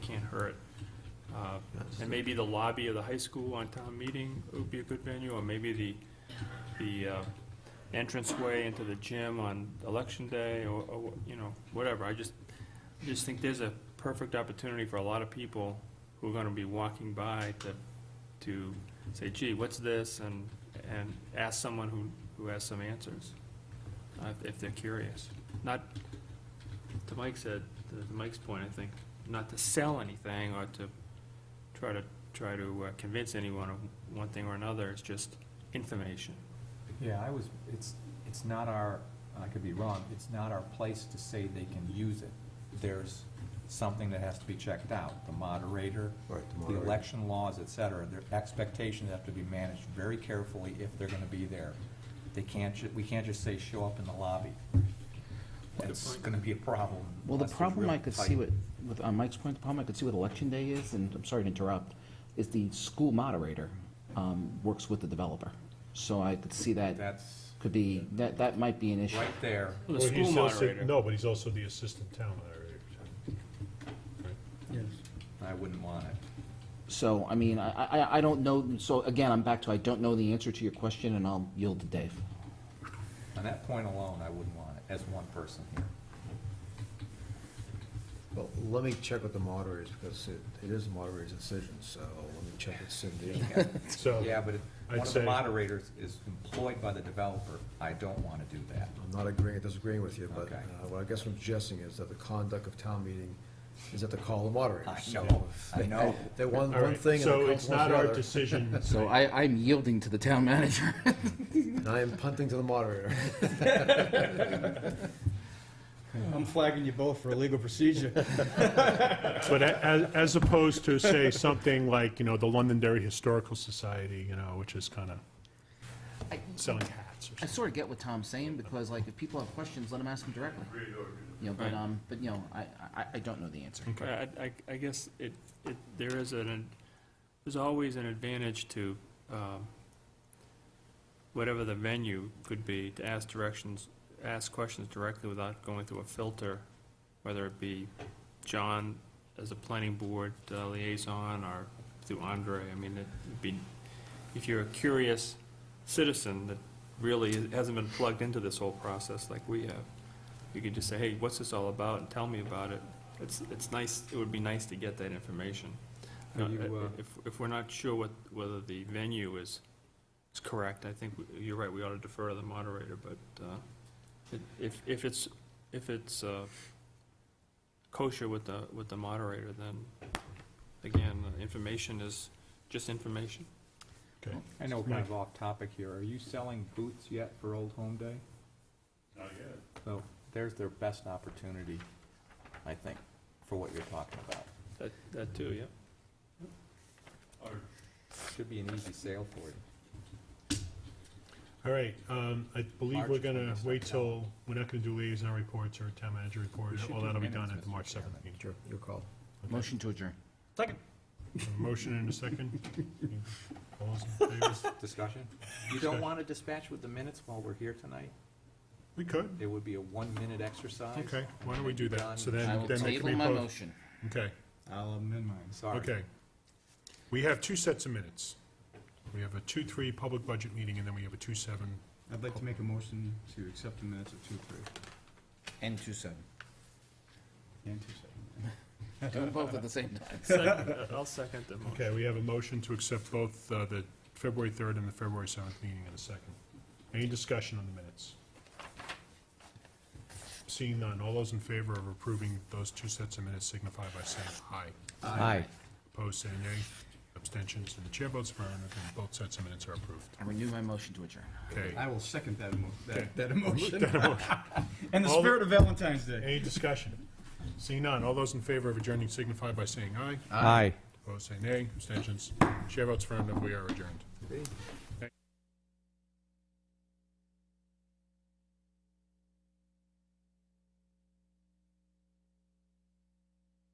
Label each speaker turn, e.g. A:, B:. A: can't hurt. Uh, And maybe the lobby of the high school on town meeting would be a good venue, or maybe the, the uh, entranceway into the gym on election day, or, or, you know, whatever. I just, just think there's a perfect opportunity for a lot of people who are gonna be walking by to, to say, gee, what's this? And, and ask someone who, who has some answers, uh, if- if they're curious. Not, to Mike said, to Mike's point, I think, not to sell anything or to try to, try to uh, convince anyone of one thing or another, it's just information.
B: Yeah, I was, it's, it's not our, I could be wrong, it's not our place to say they can use it. There's something that has to be checked out, the moderator,
C: Right, the
B: the
C: moderator.
B: election laws, et cetera. Their expectations have to be managed very carefully if they're gonna be there. They can't, ju- we can't just say, show up in the lobby. That's gonna be a problem.
D: Well, the
B: unless there's
D: problem
B: real
D: I could see
B: tight-
D: with, with, on Mike's point, the problem I could see with election day is, and I'm sorry to interrupt, is the school moderator, um, works with the developer. So I could see that
B: That's
D: could be, that, that might be an issue.
B: right there.
A: Well, the
E: Well, he's
A: school
E: also-
A: moderator.
E: No, but he's also the assistant town moderator.
B: I wouldn't want it.
D: So, I mean, I, I, I don't know, so again, I'm back to, I don't know the answer to your question, and I'll yield to Dave.
B: On that point alone, I wouldn't want it, as one person here.
C: Well, let me check with the moderators, because it, it is the moderator's decision, so let me check with Cindy.
E: So,
B: Yeah, but if one
E: I'd
B: of the
E: say-
B: moderators is employed by the developer, I don't want to do that.
C: I'm not agreeing, or disagreeing with you, but
B: Okay.
C: uh, what I guess I'm suggesting is that the conduct of town meeting is at the call of the
B: I
C: moderators.
B: know, I know.
C: They're one,
E: all
C: one
E: right,
C: thing and
E: so
C: the
E: it's
C: council wants
E: not
C: the
E: our
C: other,
E: decision.
D: So I, I'm yielding to the town manager.
C: and I am punting to the moderator.
F: I'm flagging you both for illegal procedure.
E: But a- as, as opposed to, say, something like, you know, the Londonderry Historical Society, you know, which is kind of
D: I-
E: selling hats or
D: I
E: something.
D: sort of get what Tom's saying, because like, if people have questions, let them ask them directly. You know, but,
A: Right.
D: um, but, you know, I, I, I don't know the answer.
A: I, I, I guess it, it, there is an, there's always an advantage to, um, whatever the venue could be, to ask directions, ask questions directly without going through a filter, whether it be John as a planning board uh, liaison or through Andre. I mean, it'd be, if you're a curious citizen that really hasn't been plugged into this whole process like we have, you could just say, hey, what's this all about, and tell me about it. It's, it's nice, it would be nice to get that information.
B: Are you, uh,
A: If, if we're not sure what, whether the venue is, is correct, I think, we- you're right, we ought to defer to the moderator, but uh, it- if, if it's, if it's uh, kosher with the, with the moderator, then, again, the information is just information.
E: Okay.
B: I know, kind of off topic here, are you selling booths yet for Old Home Day? Not yet. So there's their best opportunity, I think, for what you're talking about.
A: That, that too, yeah.
B: Should be an easy sale for you.
E: All right, um, I believe
B: March
E: we're gonna
B: 22nd.
E: wait till, we're not gonna do liaison reports or town manager
B: We
E: reports.
B: should
E: Well,
B: do
E: that'll be
B: minutes,
E: done at the
B: Mr.
E: March seventh
B: Chairman.
E: meeting.
C: Your, your call.
D: Motion to adjourn.
F: Second.
E: Motion and a second. All those in favor?
B: Discussion? You don't
E: Discussion.
B: want to dispatch with the minutes while we're here tonight?
E: We could,
B: It would be a one-minute exercise?
E: okay, why don't we do that? So
D: I
E: then,
D: will
E: then they
D: table
E: can be
D: my
E: posted.
D: motion.
E: Okay.
F: I'll amend mine.
B: Sorry.
E: Okay. We have two sets of minutes. We have a two-three public budget meeting, and then we have a two-seven.
F: I'd like to make a motion to accept the minutes of two, three,
D: And two seven.
F: and two, seven.
D: Do them both at the same time.
A: Second- I'll second the motion.
E: Okay, we have a motion to accept both uh, the February third and the February seventh meeting in a second. Any discussion on the minutes? Seeing none, all those in favor of approving those two sets of minutes signify by saying aye.
B: Aye.
E: Opposed, say nay. Abstentions, and the chair votes affirmative, and both sets of minutes are approved.
D: I renew my motion to adjourn.
E: Okay.
F: I will second that emo,
E: Okay.
F: that, that emotion. And the
E: All the-
F: spirit of Valentine's Day.
E: Any discussion? Seeing none, all those in favor of adjourning signify by saying aye.
B: Aye.
E: Opposed, say nay. Abstentions. Chair votes affirmative, we are adjourned.